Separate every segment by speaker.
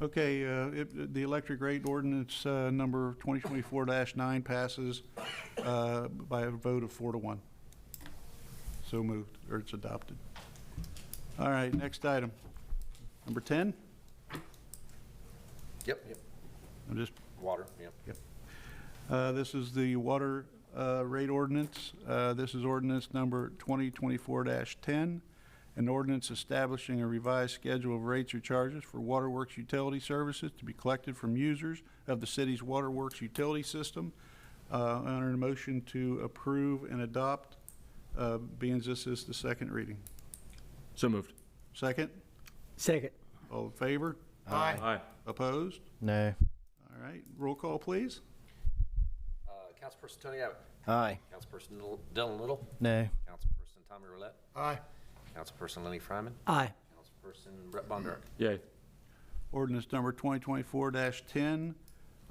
Speaker 1: Okay, uh, it- the electric rate ordinance uh, number 2024-9 passes uh, by a vote of four to one. So moved, or it's adopted. All right, next item. Number 10,
Speaker 2: Yep, yep,
Speaker 1: I'm just
Speaker 2: water, yep.
Speaker 1: Uh, This is the water uh, rate ordinance. Uh, This is ordinance number 2024-10, an ordinance establishing a revised schedule of rates or charges for waterworks utility services to be collected from users of the city's waterworks utility system. Uh, Under a motion to approve and adopt, uh, being this is the second reading.
Speaker 3: So moved.
Speaker 1: Second,
Speaker 4: Second.
Speaker 1: all in favor?
Speaker 3: Aye.
Speaker 1: Opposed?
Speaker 5: No.
Speaker 1: All right, roll call, please.
Speaker 2: Uh, Councilperson Tony Abbott.
Speaker 5: Aye.
Speaker 2: Councilperson Little- Dylan Little.
Speaker 5: No.
Speaker 2: Councilperson Tommy Roulette.
Speaker 4: Aye.
Speaker 2: Councilperson Lenny Fryman.
Speaker 4: Aye.
Speaker 2: Councilperson Brett Bondurant.
Speaker 3: Yay.
Speaker 1: Ordinance number 2024-10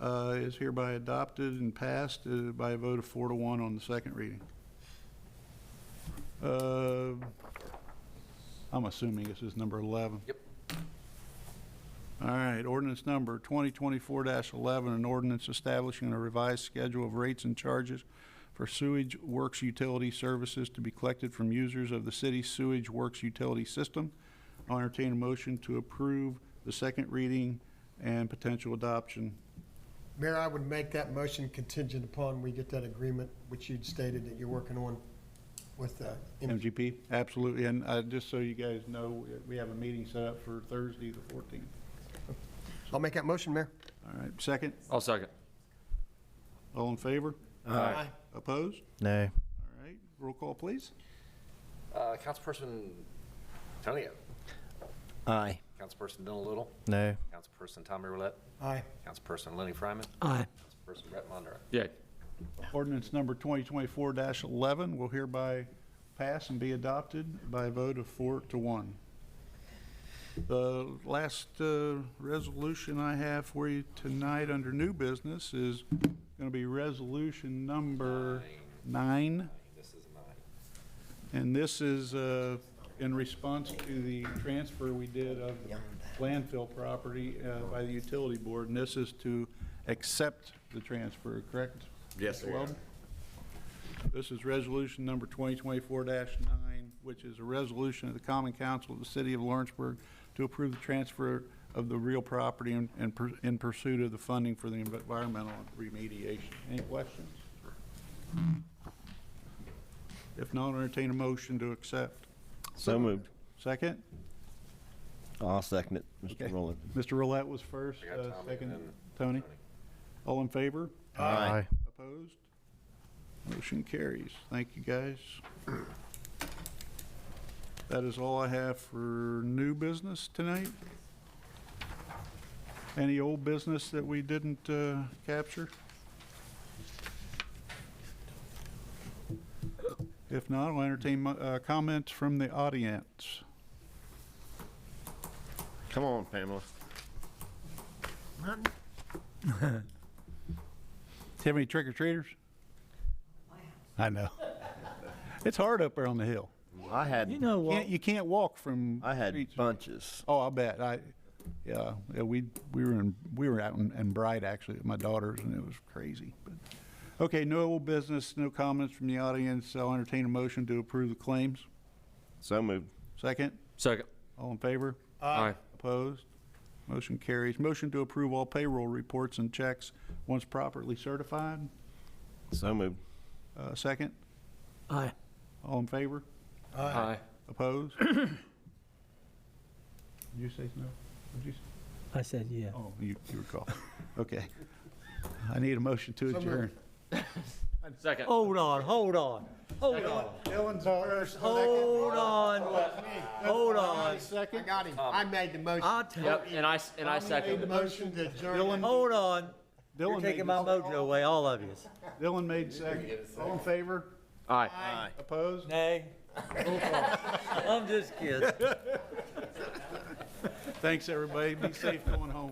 Speaker 1: uh, is hereby adopted and passed uh, by a vote of four to one on the second reading. Uh, I'm assuming this is number 11.
Speaker 2: Yep.
Speaker 1: All right, ordinance number 2024-11, an ordinance establishing a revised schedule of rates and charges for sewage works utility services to be collected from users of the city's sewage works utility system. I'll entertain a motion to approve the second reading and potential adoption.
Speaker 6: Mayor, I would make that motion contingent upon we get that agreement, which you'd stated that you're working on with uh, MG.
Speaker 1: MGP? Absolutely, and uh, just so you guys know, we- we have a meeting set up for Thursday, the 14th.
Speaker 6: I'll make that motion, Mayor.
Speaker 1: All right, second,
Speaker 3: I'll second.
Speaker 1: all in favor?
Speaker 3: Aye.
Speaker 1: Opposed?
Speaker 5: No.
Speaker 1: All right, roll call, please.
Speaker 2: Uh, Councilperson Tony Abbott.
Speaker 5: Aye.
Speaker 2: Councilperson Dylan Little.
Speaker 5: No.
Speaker 2: Councilperson Tommy Roulette.
Speaker 6: Aye.
Speaker 2: Councilperson Lenny Fryman.
Speaker 4: Aye.
Speaker 2: Councilperson Brett Bondurant.
Speaker 3: Yay.
Speaker 1: Ordinance number 2024-11 will hereby pass and be adopted by a vote of four to one. The last uh, resolution I have for you tonight under new business is going to be resolution number nine.
Speaker 2: This is nine.
Speaker 1: And this is uh, in response to the transfer we did of landfill property uh, by the utility board. And this is to accept the transfer, correct?
Speaker 3: Yes,
Speaker 1: Mr. Weldon? This is resolution number 2024-9, which is a resolution of the Common Council of the City of Lawrenceburg to approve the transfer of the real property in- in pur- in pursuit of the funding for the environmental remediation. Any questions? If not, entertain a motion to accept.
Speaker 5: So moved.
Speaker 1: Second?
Speaker 5: I'll second it,
Speaker 1: Okay.
Speaker 5: Mr. Rowland.
Speaker 1: Mr. Roulette was first,
Speaker 2: I got
Speaker 1: uh,
Speaker 2: Tommy and
Speaker 1: second,
Speaker 2: then
Speaker 1: Tony? All in favor?
Speaker 5: Aye.
Speaker 1: Opposed? Motion carries. Thank you, guys. That is all I have for new business tonight. Any old business that we didn't uh, capture? If not, I'll entertain mo- uh, comments from the audience.
Speaker 5: Come on, Pamela.
Speaker 1: Do you have any trick or treaters? I know. It's hard up there on the hill.
Speaker 5: I
Speaker 4: You
Speaker 5: had,
Speaker 4: know
Speaker 1: You
Speaker 4: what?
Speaker 1: can't, you can't walk from.
Speaker 5: I
Speaker 1: streets.
Speaker 5: had bunches.
Speaker 1: Oh, I bet. I, yeah, yeah, we, we were in, we were out in, in Bright actually with my daughters and it was crazy. But, okay, no old business, no comments from the audience. I'll entertain a motion to approve the claims.
Speaker 5: So moved.
Speaker 1: Second,
Speaker 3: Second.
Speaker 1: all in favor?
Speaker 3: Aye.
Speaker 1: Opposed? Motion carries. Motion to approve all payroll reports and checks once properly certified.
Speaker 5: So moved.
Speaker 1: Uh, second,
Speaker 4: Aye.
Speaker 1: all in favor?
Speaker 3: Aye.
Speaker 1: Opposed? Did you say no? Did you say?
Speaker 4: I said yeah.
Speaker 1: Oh, you, you recall. Okay. I need a motion to adjourn.
Speaker 3: Second.
Speaker 4: Hold on, hold on, hold on,
Speaker 1: Dylan's first.
Speaker 4: hold on, hold on.
Speaker 6: Second. I got him. I made the motion.
Speaker 4: I'll tell
Speaker 3: Yep, and I, s- and I
Speaker 6: Made
Speaker 3: second.
Speaker 6: the motion to adjourn.
Speaker 1: Dylan,
Speaker 4: Hold on. You're
Speaker 1: Dylan
Speaker 4: taking
Speaker 1: made,
Speaker 4: my
Speaker 1: the-
Speaker 4: mojo away, all of you.
Speaker 1: Dylan made second. All in favor?
Speaker 3: Aye.
Speaker 1: Opposed?
Speaker 4: Nay. I'm just kidding.
Speaker 1: Thanks, everybody. Be safe going home.